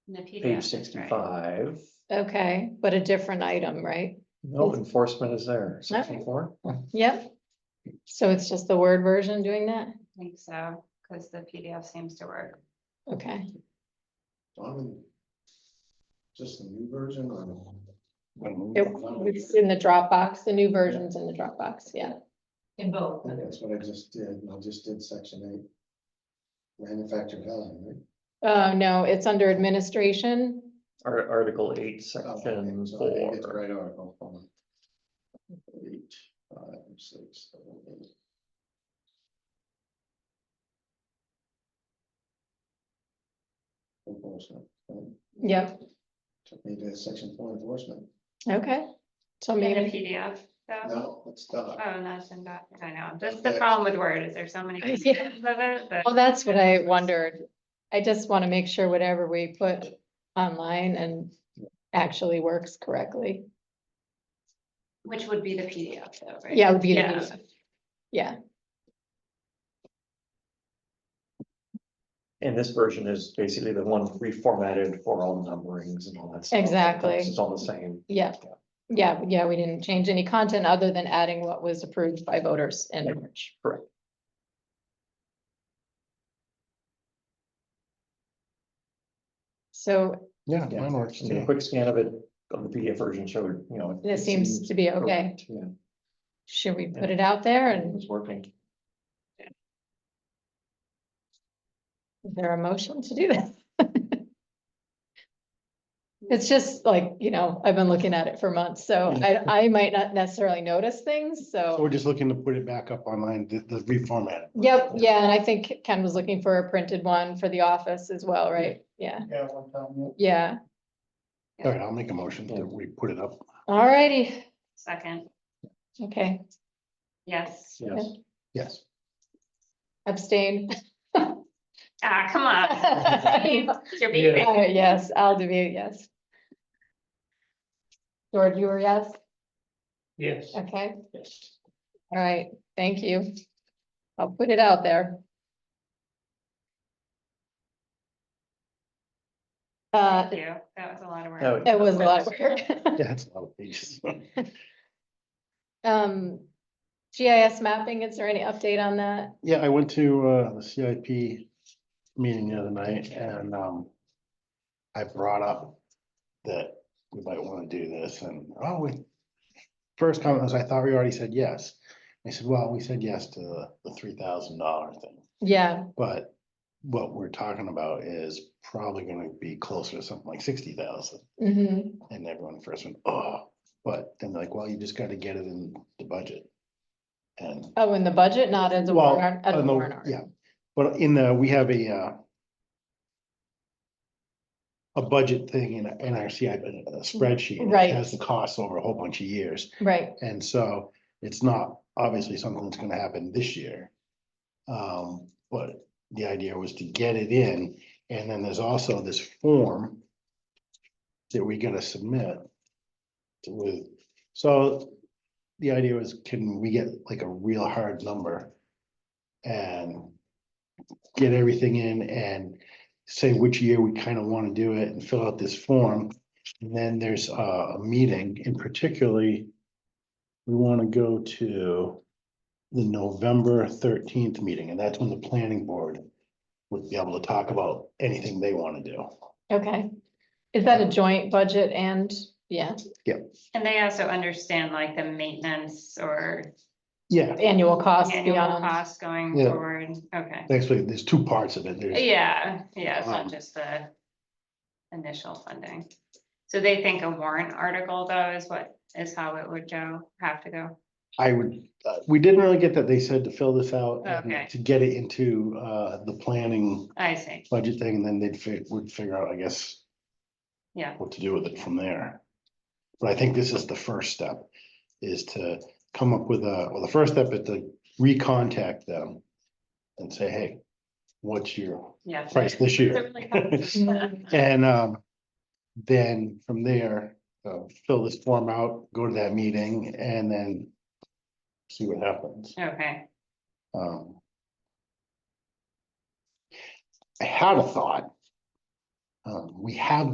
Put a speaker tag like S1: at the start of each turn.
S1: in the PDF,
S2: page
S1: right.
S2: sixty-five.
S3: Okay, but a different item, right?
S2: No
S3: Is-
S2: enforcement is there,
S3: No.
S2: section four.
S3: Yep. So it's just the Word version doing that?
S1: I think so, because the PDF seems to work.
S3: Okay,
S4: Donovan, Just the new version or?
S3: it, it's in the Dropbox, the new versions in the Dropbox, yeah.
S1: In both.
S4: That's what I just did, and I just did section eight. Manufactured housing, right?
S3: Oh, no, it's under administration.
S2: Ar- Article eight,
S4: Oh, okay,
S2: section
S4: so I didn't get the
S2: four.
S4: Right article, hold on. Eight, five, six, seven, eight. Enforcement, right?
S3: Yep,
S4: took me to section four enforcement,
S3: okay. So
S1: In a
S3: maybe,
S1: PDF, so,
S4: no, it's not.
S1: oh, no, it's in doc, I know, that's the
S4: Okay.
S1: problem with Word, is there's so many.
S3: Yeah.
S1: components of it that-
S3: well, that's what I wondered. I just want to make sure whatever we put online and actually works correctly.
S1: Which would be the PDF though, right?
S3: Yeah, it would be. the
S1: Yeah.
S3: PDF. Yeah,
S2: And this version is basically the one reformatted for all numberings and all that. stuff.
S3: Exactly.
S2: It's all the same.
S3: yeah, yeah, yeah, we didn't change any content other than adding what was approved by voters in March. So
S2: Yeah.
S4: mine works
S2: I mean, A
S4: too.
S2: quick scan of it, of the PDF version showed, you know.
S3: This seems to be okay.
S2: correct, Yeah,
S3: Should we put
S2: Yeah.
S3: it out there
S2: it
S3: and
S2: was working.
S3: is there a motion to do that? It's just like, you know, I've been looking at it for months, so I, I might not necessarily notice things,
S5: So Oh, we're
S3: so.
S5: just looking to put it back up online, the, the reformat.
S3: Yep, yeah, and I think Ken was looking for a printed one for the office as well, right? Yeah,
S4: Yeah, one time.
S3: yeah,
S1: Yeah.
S5: All right, I'll make a motion that we put it up.
S3: alrighty,
S1: Second,
S3: okay,
S1: yes,
S2: Yes.
S5: Yes.
S3: abstain.
S1: ah, come on. You're beating me.
S3: Uh, Yes, I'll do it, yes. George, you were yes?
S2: Yes.
S3: Okay,
S2: Yes.
S3: all right, thank you. I'll put it out there. Uh,
S1: Thank you, that was a lot of work.
S2: Oh,
S3: it was a lot of work.
S5: Yeah, that's a lot of pages.
S3: Um, GIS mapping, is there any update on that?
S5: Yeah, I went to, uh, the CIP meeting the other night and, um, I brought up that we might want to do this and, oh, we, first comment was, I thought we already said yes. I said, well, we said yes to the- the three thousand dollar thing.
S3: Yeah,
S5: But what we're talking about is probably gonna be closer to something like sixty thousand.
S3: mhm,
S5: And everyone first went, oh, but then they're like, well, you just gotta get it in the budget. And.
S3: oh, in the budget, not as a
S5: Well,
S3: warrant, as a
S5: on the-
S3: warrant article.
S5: Yeah, but in the, we have a uh. A budget thing in, in our CIP spreadsheet. and it
S3: Right.
S5: Has the costs over a whole bunch of years.
S3: Right,
S5: And so it's not obviously something that's gonna happen this year. Um, but the idea was to get it in, and then there's also this form. That we gotta submit. to- With, so the idea was, can we get like a real hard number? And get everything in and say which year we kind of want to do it and fill out this form. And then there's uh, a meeting and particularly. We want to go to the November thirteenth meeting, and that's when the planning board would be able to talk about anything they want to do.
S3: okay. Is that a joint budget and, yeah,
S1: And they also understand like the maintenance or
S5: Yeah,
S3: annual costs
S1: annual
S3: beyond,
S1: costs going
S5: Yeah.
S1: forward, okay.
S5: actually, there's two parts of it. There's,
S1: Yeah, yeah, it's not
S5: Um,
S1: just the initial funding. So they think a warrant article though is what, is how it would go, have to go.
S5: I would, uh, we didn't really get that. They said to fill this out. and
S1: Okay.
S5: To get it into uh, the planning
S1: I see,
S5: budget thing, and then they'd fi- would figure out, I guess,
S1: yeah,
S5: what to do with it from there. But I think this is the first step, is to come up with a, well, the first step is to recontact them and say, hey, what's your
S1: yeah.
S5: price this year?
S1: They're really
S3: Mm-hmm.
S1: complicated.
S5: And um, then from there, uh, fill this form out, go to that meeting, and then see what happens.
S1: Okay,
S5: Um, I had a thought Um, we have